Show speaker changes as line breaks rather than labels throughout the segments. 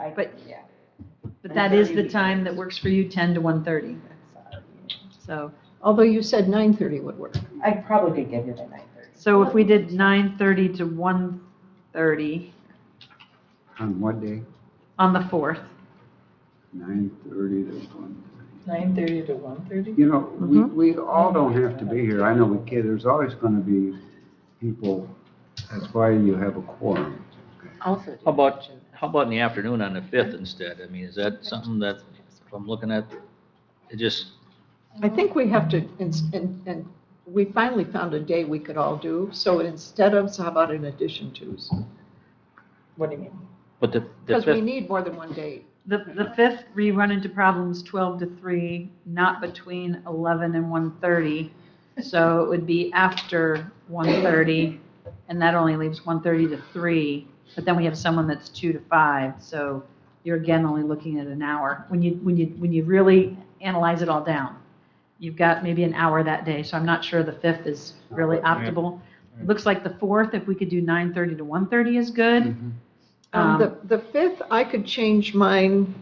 I,
But-
yeah.
But that is the
9:30.
time that works for you, 10 to 1:30. So,
Although you said 9:30 would work.
I probably could get here by nine thirty.
so if we did 9:30 to 1:30
On what day?
on the 4th,
Nine thirty to one.
Nine thirty to one thirty?
You know, we,
Mm-hmm.
Mhm.
we all don't have to be here. I know we can, there's always gonna be people. That's why you have a quorum.
Also.
How about, how about in the afternoon on the fifth instead? I mean, is that something that, if I'm looking at, it just,
I think we have to, ins- and, and we finally found a day we could all do, so instead of, so how about in addition to?
What do you mean?
but the, the
Because we
fifth,
need more than one day.
the, the 5th, we run into problems 12 to 3, not between 11 and 1:30. So it would be after 1:30, and that only leaves 1:30 to 3. But then we have someone that's 2 to 5, so you're again only looking at an hour. When you, when you, when you really analyze it all down, you've got maybe an hour that day, so I'm not sure the 5th is really optimal. Looks like the 4th, if we could do 9:30 to 1:30 is good.
Mm-hmm.
Mhm.
Um,
Um,
The, the 5th, I could change mine.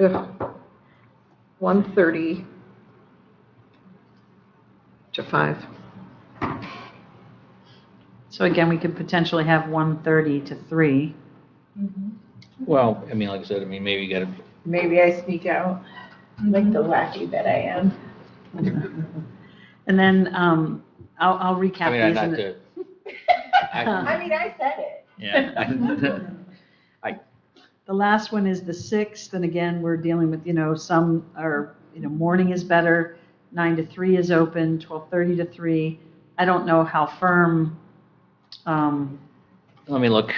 Ugh. 1:30 to 5.
So again, we could potentially have 1:30 to 3.
well, I mean, like I said, I mean, maybe you gotta,
Maybe I sneak out, like the wacky that I am.
And then um, I'll I'll
I
recap
mean, I'd
these.
like
and-
to. I-
I mean, I said it.
Yeah.
The last one is the 6th, and again, we're dealing with, you know, some are, you know, morning is better, 9 to 3 is open, 12:30 to 3. I don't know how firm, um,
Let me look.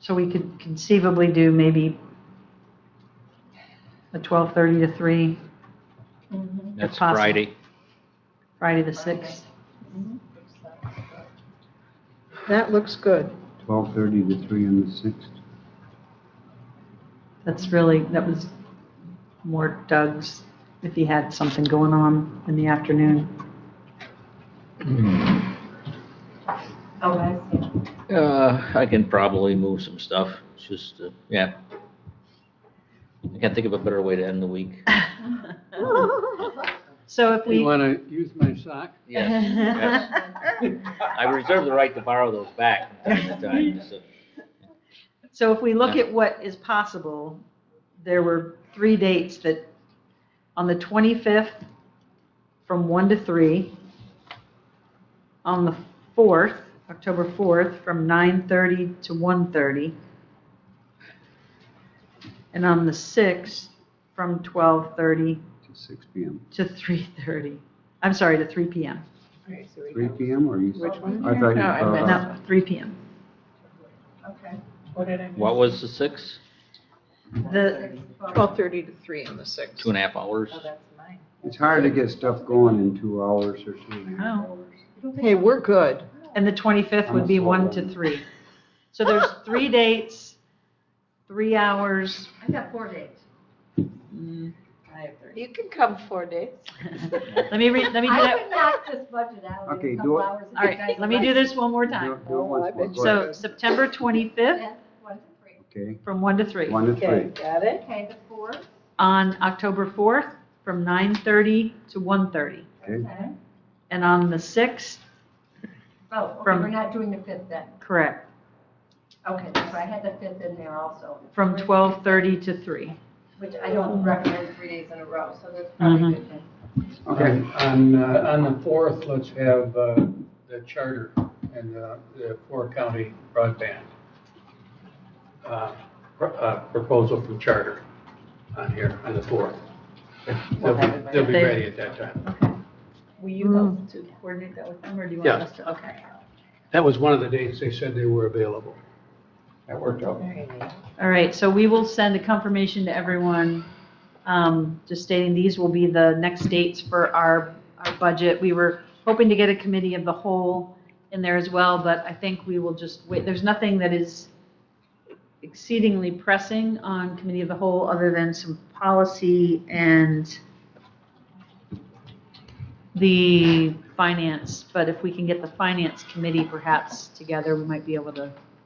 so we could conceivably do maybe the 12:30 to 3,
Mm-hmm.
That's
possible.
Friday.
Friday the 6th.
That looks good.
Twelve thirty to three on the sixth.
That's really, that was more Doug's, if he had something going on in the afternoon.
Oh, I see.
Uh, I can probably move some stuff. It's just, uh, yeah. I can't think of a better way to end the week.
So if we.
You want to use my sock?
Yes, yes. I reserve the right to borrow those back from time to time, so.
So if we look at what is possible, there were three dates that, on the 25th, from 1 to 3, on the 4th, October 4th, from 9:30 to 1:30, and on the 6th, from 12:30
to six P M.
to 3:30, I'm sorry, to 3 PM,
Three P M or you?
Which one?
I thought you
No, I
brought
meant-
up.
no, 3 PM.
Okay.
What did I miss?
What was the six?
The,
12:30 to 3 on the 6th.
Two and a half hours?
Oh, that's mine.
It's hard to get stuff going in two hours or two and a
Oh.
half hours.
Hey, we're good.
And the 25th would be 1 to 3. So there's three dates, three hours.
I got four dates.
Mm.
I have three.
You can come four days.
Let me read, let me do
I
that,
can knock this budget out
Okay,
in a
do
couple
it.
hours.
all right, let me do this one more
Do
time.
it- do
Oh,
it once more. Go
So
ahead.
September 25th
Okay,
from 1 to 3.
one to
Okay,
three.
got it?
Okay, the fourth,
On October 4th from 9:30 to 1:30.
Okay.
okay.
And on the 6th,
Oh, okay,
From-
we're not doing the fifth then.
correct,
Okay, so I had the fifth in there also.
from
Which-
12:30 to 3.
Which I don't recommend three days in a row, so that's
Mm-hmm.
probably a good thing.
Okay,
On, uh, on the fourth, let's have uh, the charter and uh, the four-county broadband uh, pr- uh, proposal from charter on here, on the fourth. They'll be, they'll be ready at that time.
Will
you help
to coordinate that with them, or do you
want Yeah. us
to? Okay.
That was one of the dates they said they were available.
that worked out.
Very neat.
All right, so we will send a confirmation to everyone, um, just stating these will be the next dates for our, our budget. We were hoping to get a committee of the whole in there as well, but I think we will just wait. There's nothing that is exceedingly pressing on committee of the whole, other than some policy and the finance, but if we can get the finance committee perhaps together, we might be able to